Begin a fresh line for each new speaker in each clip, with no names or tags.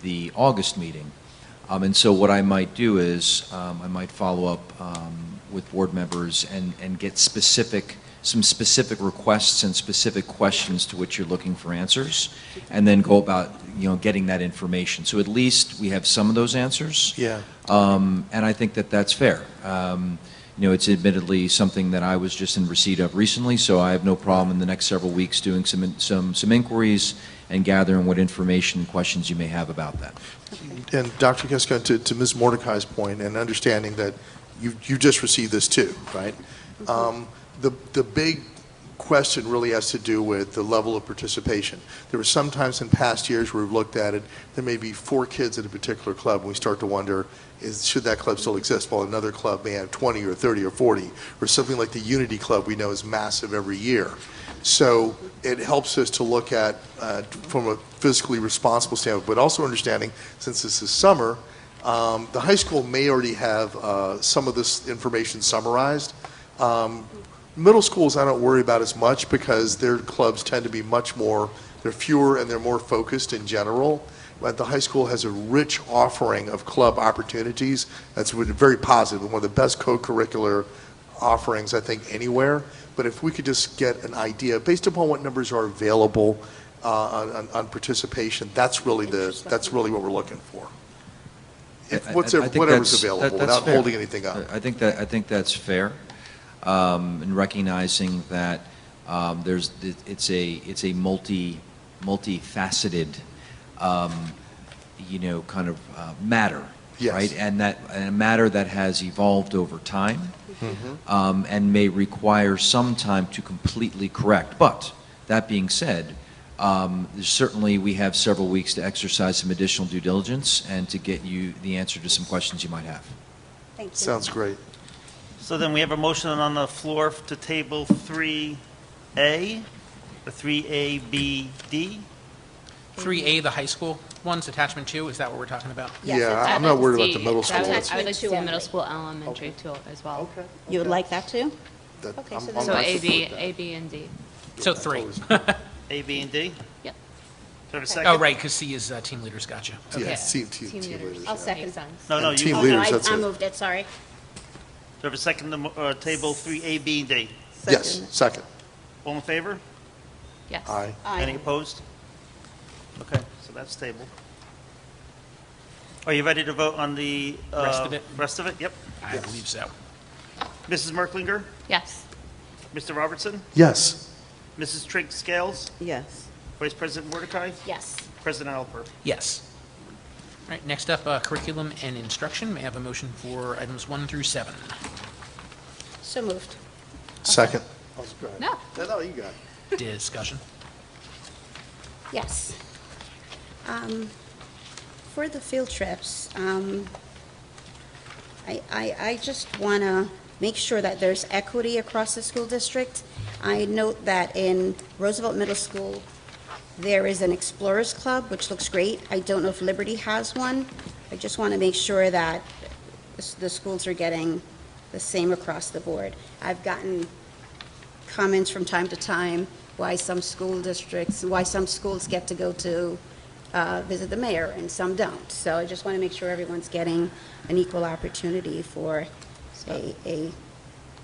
the August meeting. Um, And so what I might do is, um, I might follow up um, with board members and, and get specific, some specific requests and specific questions to which you're looking for answers, and then go about, you know, getting that information. So at least we have some of those answers.
Yeah.
Um, and I think that that's fair. Um, you know, it's admittedly something that I was just in receipt of recently, so I have no problem in the next several weeks doing some, some, some inquiries and gathering what information and questions you may have about that.
And Dr. Kiska, to, to Ms. Mordecai's point, and understanding that you, you just received this too, right? Um, The, the big question really has to do with the level of participation. There were some times in past years where we've looked at it, there may be four kids at a particular club, and we start to wonder, is, should that club still exist? While another club may have 20 or 30 or 40, or something like the Unity Club we know is massive every year. So it helps us to look at, uh, from a fiscally responsible standpoint, but also understanding, since this is summer, um, the high school may already have uh, some of this information summarized. Um, Middle schools, I don't worry about as much because their clubs tend to be much more, they're fewer and they're more focused in general. But the high school has a rich offering of club opportunities. That's what- very positive, one of the best co-curricular offerings, I think, anywhere. But if we could just get an idea, based upon what numbers are available uh, on, on- on participation, that's really the, that's really what we're looking for. If
I- I-
what's-
I think
Whatever's
that's- that-
available,
that's
without
fair.
holding anything up.
I think that, I think that's fair, um, and recognizing that, um, there's, it- it's a, it's a multi, multifaceted, um, you know, kind of, uh, matter.
Yes.
Right? And that, and a matter that has evolved over time, um, and may require some time to completely correct. But, that being said, um, there's Certainly, we have several weeks to exercise some additional due diligence and to get you the answer to some questions you might have.
Thank you.
Sounds great.
So then we have a motion on the floor to table 3A, or 3ABD.
3A, the high school ones, attachment two, is that what we're talking about?
Yes,
Yeah,
it's-
I'm not worried about the
See,
middle
I would
school.
like- I would like to see the middle
Exactly.
school, elementary too, as well.
You would like that too?
That-
Okay,
I'm-
so
I'm
then-
So
not
A, B,
supportive.
A, B, and D.
So three.
A, B, and D? Do
Yep.
I have a second?
Oh, right, because C is uh, team leaders, gotcha.
Yeah,
Okay.
team- team- team leaders,
I'll
yeah.
second.
Makes sense.
No, no,
And
you,
team
do
Oh,
I
no, I-
leaders, that's
I
it.
moved it, sorry.
have a second to mo- uh, table 3AB and D?
Yes, second.
All in favor?
Yes.
Aye.
Any
Aye.
opposed? Okay, so that's table. Are you ready to vote on the? uh,
Rest of it?
Rest of it, yep.
I believe so.
Mrs. Merklinger,
Yes.
Mr. Robertson,
Yes.
Mrs. Trigg Scales,
Yes.
Vice President Mordecai,
Yes.
President Alper.
Yes. All right, next up, uh, curriculum and instruction. May I have a motion for items one through seven?
So moved.
Second.
No.
No, you got it.
Discussion.
Yes. Um, For the field trips, um, I, I, I just want to make sure that there's equity across the school district. I note that in Roosevelt Middle School, there is an Explorers Club, which looks great. I don't know if Liberty has one. I just want to make sure that the s- the schools are getting the same across the board. I've gotten comments from time to time why some school districts, why some schools get to go to uh, visit the mayor and some don't. So I just want to make sure everyone's getting an equal opportunity for a, a,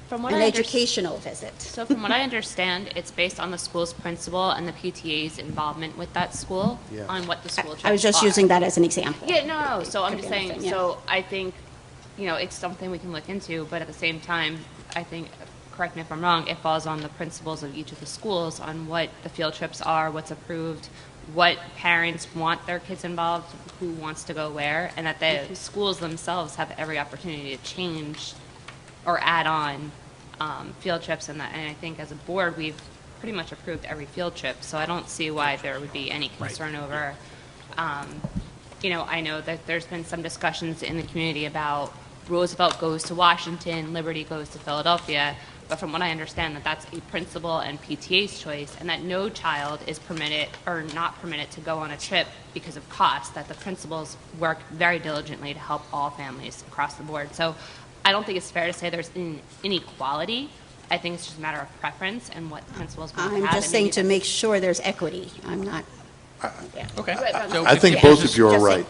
From what
an
I under-
educational visit.
So from what I understand, it's based on the school's principal and the PTA's involvement with that school
Yeah.
on what the school trips
I was just
are.
using that as an example.
Yeah, no, no, so I'm
Could
just
be
saying,
anything, yeah.
so I think, you know, it's something we can look into, but at the same time, I think, correct me if I'm wrong, it falls on the principals of each of the schools on what the field trips are, what's approved, what parents want their kids involved, who wants to go where, and that
Mm-hmm.
the schools themselves have every opportunity to change or add on um, field trips and that, and I think as a board, we've pretty much approved every field trip, so I don't see why there would be any
Right.
concern over. um, You know, I know that there's been some discussions in the community about Roosevelt goes to Washington, Liberty goes to Philadelphia, but from what I understand, that that's a principal and PTA's choice, and that no child is permitted or not permitted to go on a trip because of cost, that the principals work very diligently to help all families across the board. So I don't think it's fair to say there's in- inequality. I think it's just a matter of preference and what the principals want to have.
I'm just
and
saying
maybe
to make sure there's equity. I'm not. yeah.
Okay.
Right, right.
So
I
if
think
the
both
business-
of you are
Just like-
right.